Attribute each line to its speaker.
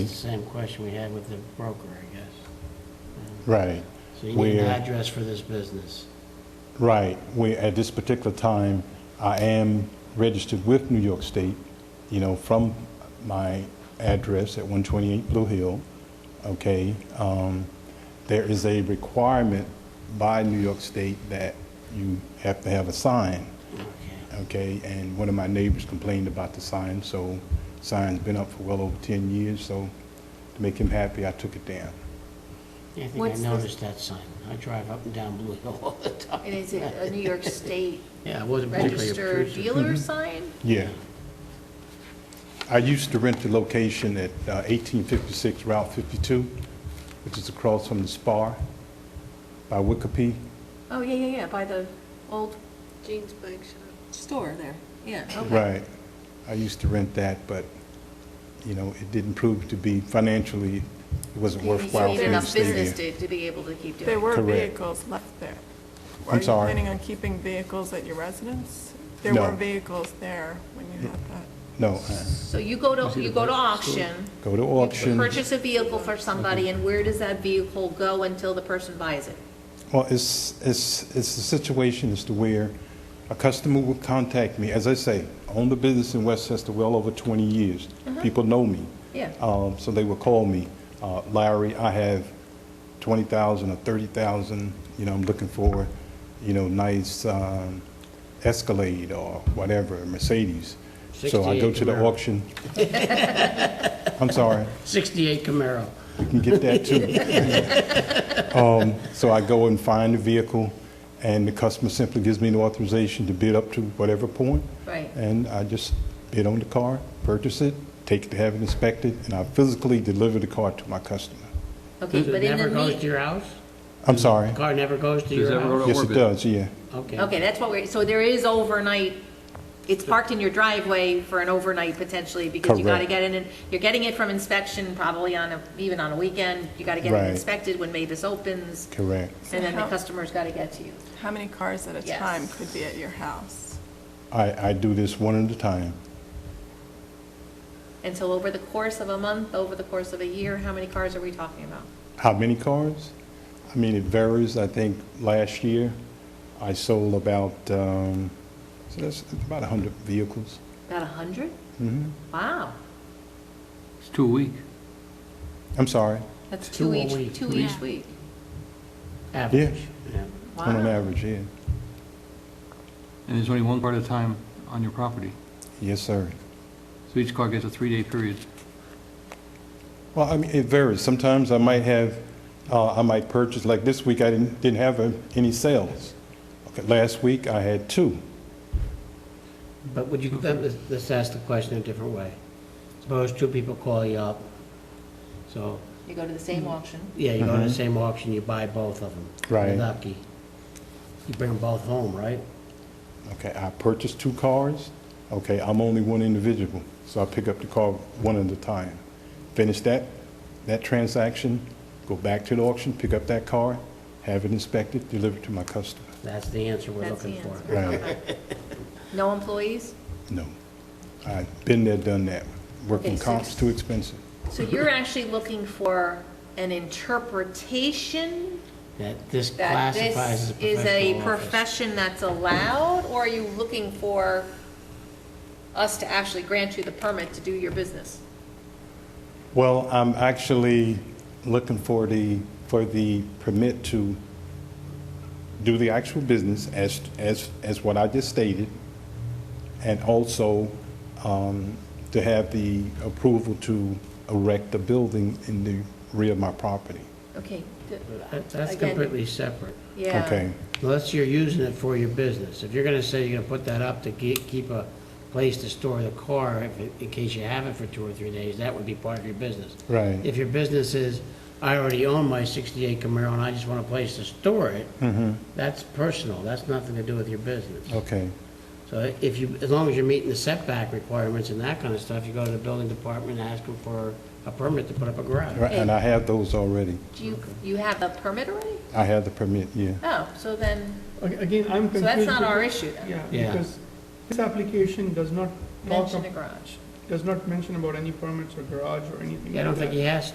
Speaker 1: Same question we had with the broker, I guess.
Speaker 2: Right,
Speaker 1: So you need an
Speaker 2: We're-
Speaker 1: address for this business.
Speaker 2: right. We, at this particular time, I am registered with New York State, you know, from my address at 128 Blue Hill, okay? Um, There is a requirement by New York State that you have to have a sign,
Speaker 1: Okay.
Speaker 2: okay? And one of my neighbors complained about the sign, so sign's been up for well over 10 years, so to make him happy, I took it down.
Speaker 1: I think I
Speaker 3: What's the-
Speaker 1: noticed that sign. I drive up and down Blue Hill all the time.
Speaker 3: And is it a New York State
Speaker 1: Yeah, it wasn't particularly
Speaker 3: registered
Speaker 1: obtrusive.
Speaker 3: dealer sign?
Speaker 2: Yeah. I used to rent the location at uh, 1856 Route 52, which is across from the Spar by Wicopee.
Speaker 3: Oh, yeah, yeah, yeah, by the old
Speaker 4: Jean's Bike Shop.
Speaker 3: store there, yeah, okay.
Speaker 2: Right. I used to rent that, but, you know, it didn't prove to be financially, it wasn't
Speaker 3: You
Speaker 2: worthwhile for
Speaker 3: need
Speaker 2: me to
Speaker 3: enough
Speaker 2: stay
Speaker 3: business
Speaker 2: there.
Speaker 3: to, to be able to keep
Speaker 5: There
Speaker 3: doing it.
Speaker 5: were
Speaker 2: Correct.
Speaker 5: vehicles left there.
Speaker 2: I'm sorry?
Speaker 5: Are you planning on keeping vehicles at your residence? There
Speaker 2: No.
Speaker 5: were vehicles there when you had that.
Speaker 2: No, uh,
Speaker 3: So you go to, you go to auction,
Speaker 2: go to
Speaker 3: you
Speaker 2: auction.
Speaker 3: purchase a vehicle for somebody, and where does that vehicle go until the person buys it?
Speaker 2: Well, it's, it's, it's a situation as to where a customer will contact me. As I say, I own the business in Westchester well over 20 years. People know me.
Speaker 3: Yeah.
Speaker 2: Um, So they will call me, uh, Larry, I have 20,000 or 30,000, you know, I'm looking for, you know, nice um, Escalade or whatever, Mercedes. So I go
Speaker 1: 68
Speaker 2: to the
Speaker 1: Camaro.
Speaker 2: auction. I'm sorry.
Speaker 1: 68 Camaro.
Speaker 2: You can get that too. Um, So I go and find the vehicle, and the customer simply gives me an authorization to bid up to whatever point.
Speaker 3: Right.
Speaker 2: And I just bid on the car, purchase it, take it to have it inspected, and I physically deliver the car to my customer.
Speaker 3: Okay,
Speaker 1: Does
Speaker 3: but
Speaker 1: it
Speaker 3: in
Speaker 1: never
Speaker 3: the
Speaker 1: goes to
Speaker 3: mean,
Speaker 1: your house?
Speaker 2: I'm sorry.
Speaker 1: The car never goes to your
Speaker 6: that road
Speaker 1: house?
Speaker 2: Yes, it
Speaker 6: Orbit.
Speaker 2: does, yeah.
Speaker 3: okay, that's what we're, so there is overnight, it's parked in your driveway for an overnight potentially, because you gotta
Speaker 2: Correct.
Speaker 3: get it in, you're getting it from inspection probably on a, even on a weekend, you gotta get
Speaker 2: Right.
Speaker 3: it inspected when Mavis opens,
Speaker 2: Correct.
Speaker 3: and then the
Speaker 5: How-
Speaker 3: customer's gotta get to you.
Speaker 5: How many cars at a
Speaker 3: Yes.
Speaker 5: time could be at your house?
Speaker 2: I, I do this one at a time.
Speaker 3: And so over the course of a month, over the course of a year, how many cars are we talking about?
Speaker 2: How many cars? I mean, it varies. I think last year, I sold about, um, so that's about 100 vehicles.
Speaker 3: About a 100?
Speaker 2: Mhm.
Speaker 3: Wow.
Speaker 6: It's two a week.
Speaker 2: I'm sorry.
Speaker 3: That's
Speaker 1: Two
Speaker 3: two
Speaker 1: a
Speaker 3: each,
Speaker 1: week.
Speaker 3: two each week.
Speaker 1: Average. Yeah.
Speaker 2: On an
Speaker 3: Wow.
Speaker 2: average, yeah.
Speaker 6: And there's only one car at a time on your property.
Speaker 2: Yes, sir.
Speaker 6: So each car gets a three-day period.
Speaker 2: Well, I mean, it varies. Sometimes I might have, uh, I might purchase, like this week, I didn't, didn't have uh, any sales. Okay, Last week, I had two.
Speaker 1: But would you, let- let's- let's ask the question a different way. Suppose two people call you up, so,
Speaker 3: You go to the same auction.
Speaker 1: yeah, you go to the same auction, you buy both of them.
Speaker 2: Mm-hmm. Right.
Speaker 1: Lucky. You bring them both home, right?
Speaker 2: Okay, I purchased two cars. Okay, I'm only one individual, so I pick up the car one at a time. Finish that, that transaction, go back to the auction, pick up that car, have it inspected, delivered to my customer.
Speaker 1: That's the answer we're
Speaker 3: That's the
Speaker 1: looking for.
Speaker 3: answer.
Speaker 2: Right.
Speaker 3: Okay. No employees?
Speaker 2: No. I've been there, done that. Working
Speaker 3: Okay, so-
Speaker 2: comp's too expensive.
Speaker 3: So you're actually looking for an interpretation
Speaker 1: That this
Speaker 3: that this
Speaker 1: classifies as a
Speaker 3: is a
Speaker 1: professional office.
Speaker 3: profession that's allowed? Or are you looking for us to actually grant you the permit to do your business?
Speaker 2: Well, I'm actually looking for the, for the permit to do the actual business as, as, as what I just stated, and also um, to have the approval to erect a building in the rear of my property.
Speaker 3: Okay. th-
Speaker 1: That- That's
Speaker 3: again,
Speaker 1: completely separate.
Speaker 3: Yeah.
Speaker 2: Okay,
Speaker 1: Unless you're using it for your business. If you're gonna say you're gonna put that up to ge- keep a place to store the car if it- in case you have it for two or three days, that would be part of your business.
Speaker 2: right,
Speaker 1: If your business is, I already own my 68 Camaro and I just want a place to store it, that's personal, that's nothing to do with your business.
Speaker 2: okay,
Speaker 1: So if you, as long as you're meeting the setback requirements and that kind of stuff, you go to the building department and ask them for a permit to put up a garage.
Speaker 2: Right, and I have those already.
Speaker 3: Do you, you have a permit already?
Speaker 2: I have the permit, yeah.
Speaker 3: Oh, so then,
Speaker 7: Again, I'm
Speaker 3: so
Speaker 7: confused.
Speaker 3: that's not our
Speaker 7: because-
Speaker 3: issue then,
Speaker 7: Yeah,
Speaker 1: Yeah.
Speaker 7: because this application does not talk,
Speaker 3: mention a
Speaker 7: ab-
Speaker 3: garage.
Speaker 7: does not mention about any permits or garage or anything like that.
Speaker 1: Yeah, I don't think he has